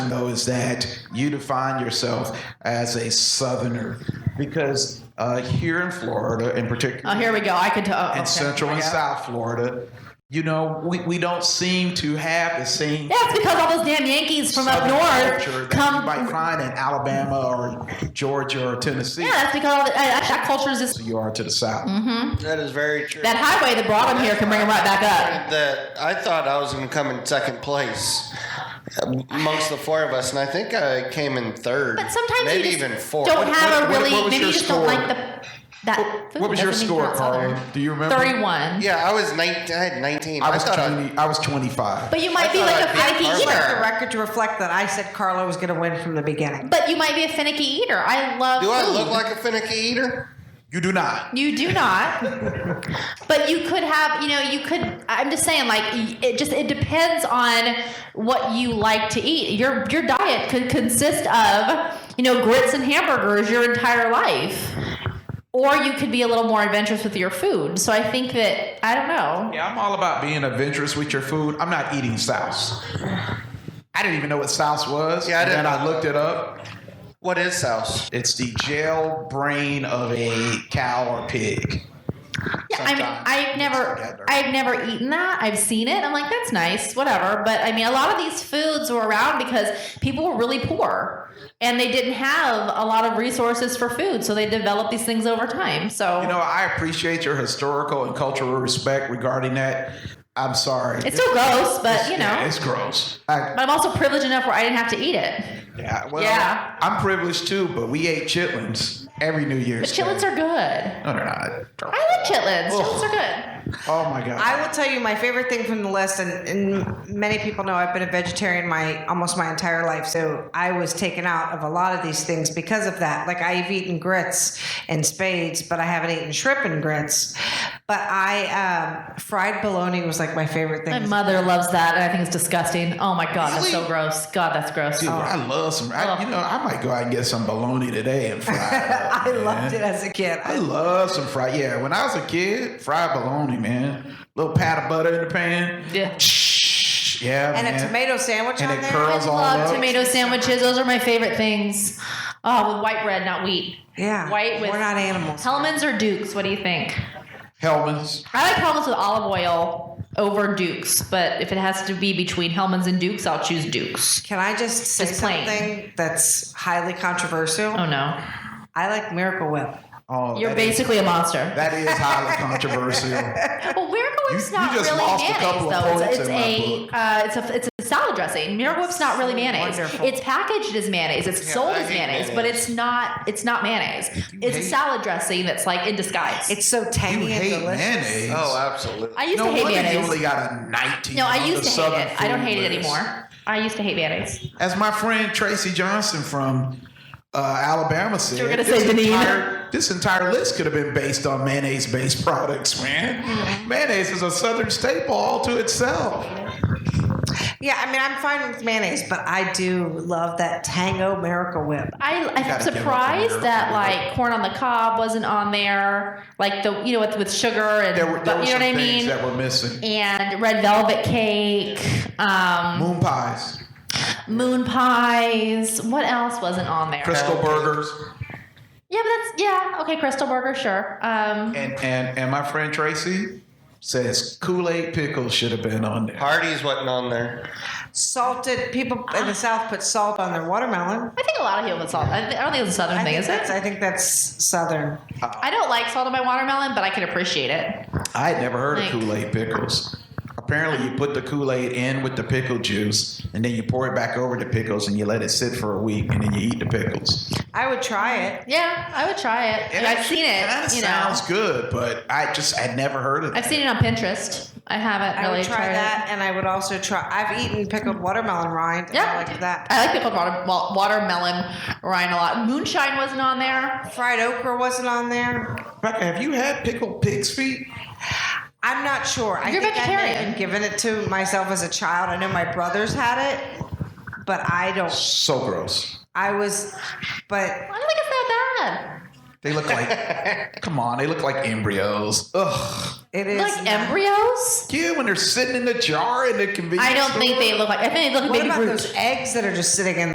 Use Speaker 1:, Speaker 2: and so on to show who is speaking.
Speaker 1: though is that you define yourself as a Southerner because uh, here in Florida, in particular,
Speaker 2: Oh, here we go. I could tell.
Speaker 1: in Central and South Florida, you know, we, we don't seem to have the same
Speaker 2: That's because all those damn Yankees from up
Speaker 1: Southern
Speaker 2: north
Speaker 1: culture that you
Speaker 2: come.
Speaker 1: might find in Alabama or Georgia or Tennessee.
Speaker 2: Yeah, Mm-hmm. that's because all the, uh, that, that culture is just.
Speaker 1: You are to the South.
Speaker 3: That is very true.
Speaker 2: That highway that brought them here can bring them right back up.
Speaker 3: that I thought I was going to come in second place amongst the four of us, and I think I came in third.
Speaker 2: But sometimes
Speaker 3: maybe
Speaker 2: you just
Speaker 3: even fourth.
Speaker 2: don't have
Speaker 1: what-
Speaker 2: a really.
Speaker 1: what was
Speaker 2: maybe you
Speaker 1: your
Speaker 2: just don't
Speaker 1: score?
Speaker 2: like the. That food
Speaker 1: what was your
Speaker 2: doesn't mean
Speaker 1: score,
Speaker 2: it's not
Speaker 1: Carla?
Speaker 2: Southern.
Speaker 1: Do you remember?
Speaker 2: Thirty-one.
Speaker 3: yeah, I was 19. I had 19.
Speaker 1: I was
Speaker 3: thought I-
Speaker 1: 20, I was 25.
Speaker 2: But you might
Speaker 3: I
Speaker 2: be
Speaker 3: thought
Speaker 2: like
Speaker 3: I'd
Speaker 2: a
Speaker 3: be
Speaker 2: finicky
Speaker 3: Carla.
Speaker 4: Like the
Speaker 2: eater.
Speaker 4: record to reflect that I said Carlo was going to win from the beginning.
Speaker 2: But you might be a finicky eater. I love.
Speaker 3: do I
Speaker 2: food.
Speaker 3: look like a finicky eater?
Speaker 1: You do not.
Speaker 2: You do not. but you could have, you know, you could. I'm just saying, like, y- it just it depends on what you like to eat. Your your diet could consist of, you know, grits and hamburgers your entire life. Or you could be a little more adventurous with your food. So I think that I don't know.
Speaker 1: Yeah, I'm all about being adventurous with your food. I'm not eating souse. I didn't even know what souse was.
Speaker 3: Yeah, I
Speaker 1: and
Speaker 3: didn't
Speaker 1: then I
Speaker 3: know.
Speaker 1: looked it up.
Speaker 3: What is souse?
Speaker 1: It's the gel brain of a cow or pig.
Speaker 2: Yeah, I mean,
Speaker 1: Sometimes
Speaker 2: I've never,
Speaker 1: together.
Speaker 2: I've never eaten that. I've seen it. I'm like, that's nice, whatever. But I mean, a lot of these foods were around because people were really poor and they didn't have a lot of resources for food, so they developed these things over time. So
Speaker 1: You know, I appreciate your historical and cultural respect regarding that. I'm sorry.
Speaker 2: it's still gross, but you know.
Speaker 1: Yeah, it's gross. I,
Speaker 2: but I'm also privileged enough where I didn't have to eat it.
Speaker 1: yeah, well,
Speaker 2: Yeah.
Speaker 1: I'm privileged too, but we ate chitlins every New
Speaker 2: But
Speaker 1: Year's.
Speaker 2: chitlins
Speaker 1: Day.
Speaker 2: are good.
Speaker 1: No, they're not.
Speaker 2: I like chitlins. Chitlins are good.
Speaker 1: Oh my God.
Speaker 4: I will tell you my favorite thing from the list, and, and many people know I've been a vegetarian my almost my entire life, so I was taken out of a lot of these things because of that. Like I've eaten grits and spades, but I haven't eaten shrimp and grits. But I um, fried bologna was like my favorite
Speaker 2: My
Speaker 4: thing.
Speaker 2: mother loves that, and I think it's disgusting. Oh my god, that's so gross. God, that's gross. Oh.
Speaker 1: Dude, I love some. I, you know, I might go out and get some bologna today and fry it. Up,
Speaker 4: I
Speaker 1: man.
Speaker 4: loved it as a kid.
Speaker 1: I love some fried. Yeah, when I was a kid, fried bologna, man. Little pat of butter in the pan.
Speaker 2: Yeah.
Speaker 1: Shh. Yeah,
Speaker 4: and
Speaker 1: man.
Speaker 4: a tomato sandwich
Speaker 1: And
Speaker 4: on
Speaker 1: it
Speaker 4: there.
Speaker 2: I
Speaker 1: curls all
Speaker 2: love
Speaker 1: up.
Speaker 2: tomato sandwiches. Those are my favorite things. Oh, with white bread, not wheat.
Speaker 4: Yeah,
Speaker 2: White with
Speaker 4: we're not animals.
Speaker 2: Hellman's or Duke's? What do you think?
Speaker 1: Hellman's.
Speaker 2: I like Hellman's with olive oil over Duke's, but if it has to be between Hellman's and Duke's, I'll choose Duke's.
Speaker 4: Can I just say
Speaker 2: Just plain.
Speaker 4: something that's highly controversial?
Speaker 2: Oh no,
Speaker 4: I like Miracle Whip.
Speaker 1: Oh,
Speaker 2: you're
Speaker 1: that is-
Speaker 2: basically a monster.
Speaker 1: That is highly controversial.
Speaker 2: well, Miracle
Speaker 1: You-
Speaker 2: Whip's
Speaker 1: you
Speaker 2: not
Speaker 1: just
Speaker 2: really
Speaker 1: lost a
Speaker 2: mayonnaise,
Speaker 1: couple of
Speaker 2: though.
Speaker 1: points
Speaker 2: It's, it's
Speaker 1: in my
Speaker 2: a
Speaker 1: book.
Speaker 2: uh, it's a it's a salad dressing. Miracle Whip's not really mayonnaise.
Speaker 4: wonderful.
Speaker 2: It's packaged as mayonnaise. It's
Speaker 3: Yeah,
Speaker 2: sold
Speaker 3: I
Speaker 2: as
Speaker 3: hate
Speaker 2: mayonnaise, but
Speaker 3: mayonnaise.
Speaker 2: it's not it's not mayonnaise. It's a
Speaker 1: hate-
Speaker 2: salad dressing that's like in disguise.
Speaker 4: It's so
Speaker 1: You
Speaker 4: tangy and
Speaker 1: hate
Speaker 4: delicious.
Speaker 1: mayonnaise.
Speaker 3: Oh, absolutely.
Speaker 2: I used
Speaker 1: no
Speaker 2: to hate
Speaker 1: wonder you
Speaker 2: mayonnaise.
Speaker 1: only got a 19.
Speaker 2: No, I
Speaker 1: on
Speaker 2: used
Speaker 1: the
Speaker 2: to hate
Speaker 1: Southern
Speaker 2: it. I don't
Speaker 1: food
Speaker 2: hate it
Speaker 1: list.
Speaker 2: anymore. I used to hate mayonnaise.
Speaker 1: As my friend Tracy Johnson from uh, Alabama said,
Speaker 2: were gonna
Speaker 1: this,
Speaker 2: say Deneen.
Speaker 1: entire, this entire list could have been based on mayonnaise-based products, man. mayonnaise is a Southern staple all to itself.
Speaker 4: Yeah, I mean, I'm fine with mayonnaise, but I do love that Tango Miracle Whip.
Speaker 2: I, I'm
Speaker 1: gotta give up on
Speaker 2: surprised
Speaker 1: your-
Speaker 2: that like corn on the cob wasn't on there, like the you know with, with sugar and
Speaker 1: There were, there
Speaker 2: but
Speaker 1: were
Speaker 2: you know
Speaker 1: some
Speaker 2: what I
Speaker 1: things
Speaker 2: mean.
Speaker 1: that were missing.
Speaker 2: and red velvet cake, um,
Speaker 1: Moon pies,
Speaker 2: moon pies. What else wasn't on there?
Speaker 1: Crystal burgers,
Speaker 2: Yeah, but that's yeah. Okay, crystal burger, sure. Um,
Speaker 1: and and and my friend Tracy says Kool-Aid pickles should have been on there.
Speaker 3: Hardee's wasn't on there.
Speaker 4: Salted people in the South put salt on their watermelon.
Speaker 2: I think a lot of humans salt. I, I don't think it's a southern
Speaker 4: I
Speaker 2: thing,
Speaker 4: think,
Speaker 2: is
Speaker 4: that's,
Speaker 2: it?
Speaker 4: I think that's Southern.
Speaker 2: I don't like salt on my watermelon, but I can appreciate it.
Speaker 1: I had never heard
Speaker 2: Like-
Speaker 1: of Kool Aid pickles. Apparently, you put the Kool Aid in with the pickle juice, and then you pour it back over the pickles, and you let it sit for a week, and then you eat the pickles.
Speaker 4: I would try it.
Speaker 2: Yeah, I would try it.
Speaker 1: And
Speaker 2: I've seen it.
Speaker 1: That
Speaker 2: you know.
Speaker 1: sounds good, but I just I'd never heard of
Speaker 2: I've
Speaker 1: it.
Speaker 2: seen it on Pinterest. I haven't
Speaker 4: I
Speaker 2: really
Speaker 4: would try
Speaker 2: tried
Speaker 4: that, and I would also try. I've eaten pickled watermelon rind.
Speaker 2: it.
Speaker 4: and
Speaker 2: Yeah,
Speaker 4: I like that.
Speaker 2: I like pickled water, wa- watermelon rind a lot. Moonshine wasn't on there.
Speaker 4: Fried okra wasn't on there.
Speaker 1: Rebecca, have you had pickled pig's feet?
Speaker 4: I'm not sure. I
Speaker 2: You're
Speaker 4: think I
Speaker 2: vegetarian.
Speaker 4: may have given it to myself as a child. I know my brothers had it, but I don't.
Speaker 1: So gross.
Speaker 4: I was, but
Speaker 2: I don't think it's that bad.
Speaker 1: They look like, come on, they look like embryos. Ugh.
Speaker 4: It is
Speaker 2: like
Speaker 4: not-
Speaker 2: embryos.
Speaker 1: Yeah, when they're sitting in the jar in the convenience
Speaker 2: I don't think
Speaker 1: store.
Speaker 2: they look like. I think they look like
Speaker 4: What
Speaker 2: baby
Speaker 4: about
Speaker 2: Groot.
Speaker 4: those eggs that are just sitting in